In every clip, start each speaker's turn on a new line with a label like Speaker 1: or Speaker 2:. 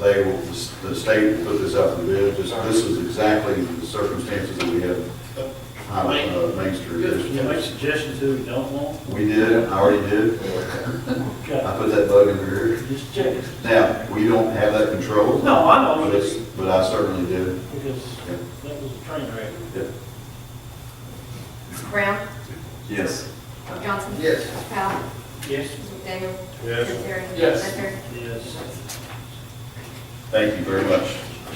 Speaker 1: They will, the state will put this out for bid, Just- this is exactly the circumstances that we have on uh, Main Street.
Speaker 2: Can you make suggestions who we don't want?
Speaker 1: We did, I already did, I
Speaker 2: Okay,
Speaker 1: put that bug in her ear.
Speaker 2: Just check it.
Speaker 1: Now, we don't have that control.
Speaker 2: No, I know,
Speaker 1: But
Speaker 2: but
Speaker 1: it's-
Speaker 2: it's-
Speaker 1: but I certainly did.
Speaker 2: because that was a train wreck.
Speaker 3: Brown?
Speaker 4: Yes.
Speaker 3: Johnson?
Speaker 5: Yes.
Speaker 3: Powell?
Speaker 2: Yes.
Speaker 3: Mr. Daniel?
Speaker 5: Yes.
Speaker 3: Terry?
Speaker 5: Yes.
Speaker 3: Lecter?
Speaker 2: Yes.
Speaker 1: Thank you very much.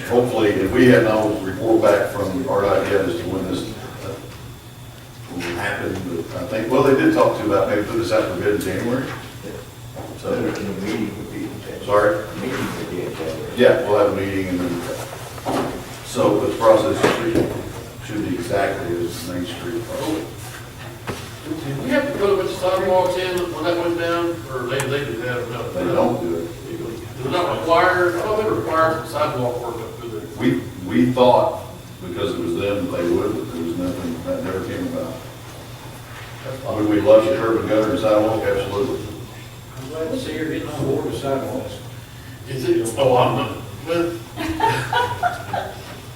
Speaker 1: Hopefully, if we have no report back from RDOT yet as to when this uh, will happen, but I think, well, they did talk to about maybe put this out for bid in January.
Speaker 4: So the meeting would be in January.
Speaker 1: Sorry?
Speaker 4: The meeting would be in January.
Speaker 1: Yeah, we'll have a meeting and then, so the process should- should be exactly as Main Street. probably.
Speaker 5: Did we have to put a bunch of sidewalks in when that went down, or they, they did that enough?
Speaker 1: They don't do it.
Speaker 5: They're not required, I don't think required sidewalk work up through there.
Speaker 1: We, we thought, because it was them, they would, but there was nothing, that never came about. Would we love to curb and gutter and sidewalk? Absolutely.
Speaker 2: I'm glad to see you're getting on board with sidewalks.
Speaker 5: Is it, oh, I'm not, well.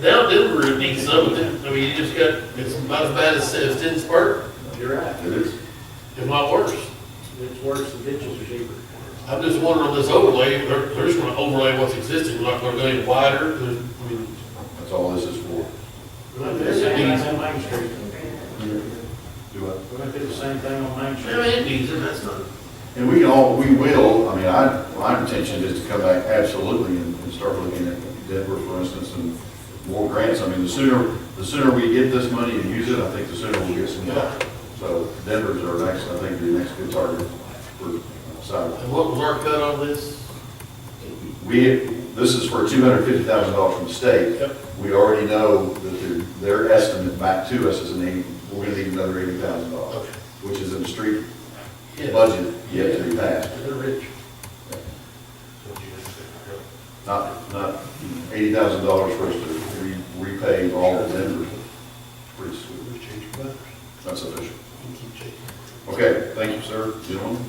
Speaker 5: Now Denver needs some of it, I mean, you just got, it's about as bad as, as Den's Park,
Speaker 2: You're right.
Speaker 1: It is.
Speaker 5: if not worse.
Speaker 2: It's worse, the ditches are deeper.
Speaker 5: I'm just wondering on this overlay, they're, they're just gonna overlay what's existing, We're not gonna go any wider, there's, I mean.
Speaker 1: That's all this is for.
Speaker 2: We're gonna do the same thing on Main Street.
Speaker 1: Do I?
Speaker 2: We're gonna do the same thing on Main
Speaker 5: I mean,
Speaker 2: Street.
Speaker 5: it needs it, that's not.
Speaker 1: And we all, we will, I mean, I, my intention is to come back absolutely and and start looking at Denver, for instance, and more grants. I mean, the sooner, the sooner we get this money and use it, I think the sooner we'll get some help. So Denver's our next, I think, the next good target for uh, sidewalk.
Speaker 5: And what was our cut on this?
Speaker 1: We, this is for two hundred fifty thousand dollars from the state.
Speaker 5: Yep.
Speaker 1: We already know that their, their estimate back to us is an eighty, we're gonna need another eighty thousand dollars,
Speaker 5: Okay.
Speaker 1: which is in the street
Speaker 5: Yeah.
Speaker 1: budget yet to be passed.
Speaker 5: They're rich.
Speaker 1: Not, not eighty thousand dollars for us to re- repay all of Denver. Pretty sweet. That's official. Okay, thank you, sir, gentlemen.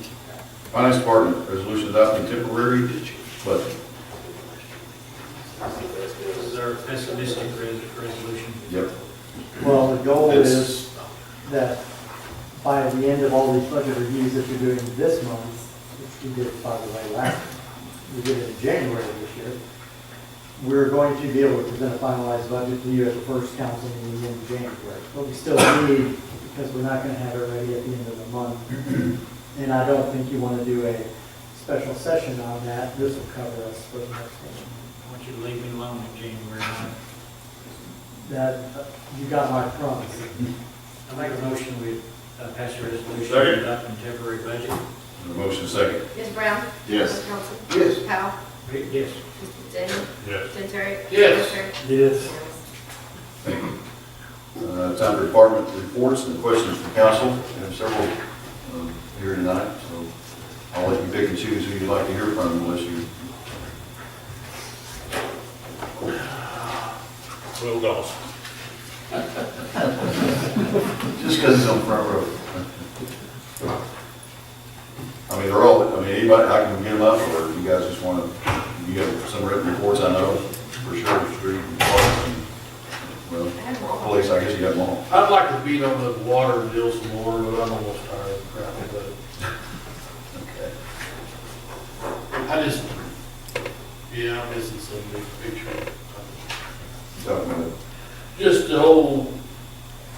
Speaker 1: Finance Department, resolution adopting temporary budget.
Speaker 2: This is our pessimistic res- resolution.
Speaker 1: Yep.
Speaker 6: Well, the goal
Speaker 1: It's-
Speaker 6: is that by the end of all these budget reviews that you're doing this month, which we did by the way last, we did it in January of this year, we're going to be able to present a finalized budget to you at the first council meeting in January. But we still need, because we're not gonna have it ready at the end of the month. And I don't think you wanna do a special session on that. This will cover us for the next one.
Speaker 2: I want you to leave me alone in January. man.
Speaker 6: That, uh, you got my promise.
Speaker 2: I make a motion we uh, pass a resolution
Speaker 1: Second.
Speaker 2: adopting temporary budget.
Speaker 1: Motion second.
Speaker 3: Ms. Brown?
Speaker 4: Yes.
Speaker 3: Johnson?
Speaker 1: Yes.
Speaker 3: Powell?
Speaker 2: Yes.
Speaker 3: Mr. Daniel?
Speaker 5: Yes.
Speaker 3: Tim Terry?
Speaker 5: Yes.
Speaker 3: Lecter?
Speaker 2: Yes.
Speaker 1: Uh, Time for department reports and questions from council. We have several um, here tonight, so I'll let you pick and choose who you'd like to hear from unless you,
Speaker 5: Well, Dawson.
Speaker 1: just because it's on front row. I mean, they're all, I mean, anybody, I can get them up, or you guys just want to, you have some written reports, I know, for sure, street and parks and, well,
Speaker 3: I have one.
Speaker 1: police, I guess you got them all.
Speaker 5: I'd like to beat on the water deal some more, but I'm almost tired of crap with
Speaker 1: Okay.
Speaker 5: that. I just, yeah, I'm missing some big picture.
Speaker 1: Talking about
Speaker 5: Just the whole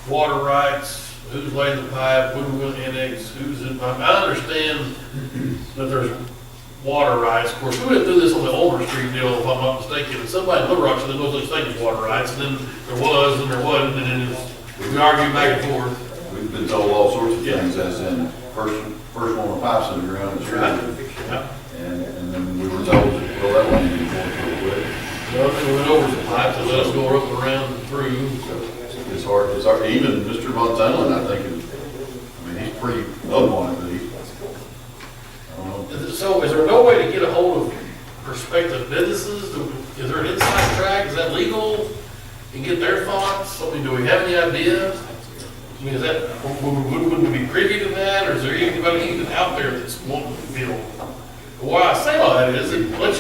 Speaker 5: water rights, who's laying the pipe, when we're gonna annex, who's in, I I understand that there's water rights. Of course, we went through this on the Olmer Street deal, if I'm not mistaken, and somebody in Little Rock said there was such thing as water rights, and then there was, and there wasn't, and then it's- we argued back and forth.
Speaker 1: We've been told all sorts of
Speaker 5: Yeah.
Speaker 1: things, as in, first, first one with pipes in the ground is
Speaker 5: Right.
Speaker 1: right. And, and then we were told, well, that one didn't work real quick.
Speaker 5: Well, we went over some pipes, and let us go up and around and through, so.
Speaker 1: It's hard, it's hard, even Mr. Montana, I think, is, I mean, he's pretty up on it, but he's, I don't know.
Speaker 5: Is it- So is there no way to get a hold of prospective businesses? Do- Is there an inside track? Is that legal? And get their thoughts? I mean, do we have any ideas? I mean, is that, would, would, would we be privy to that, or is there anybody even out there that's wanting to build? Why I say all that is, it lets you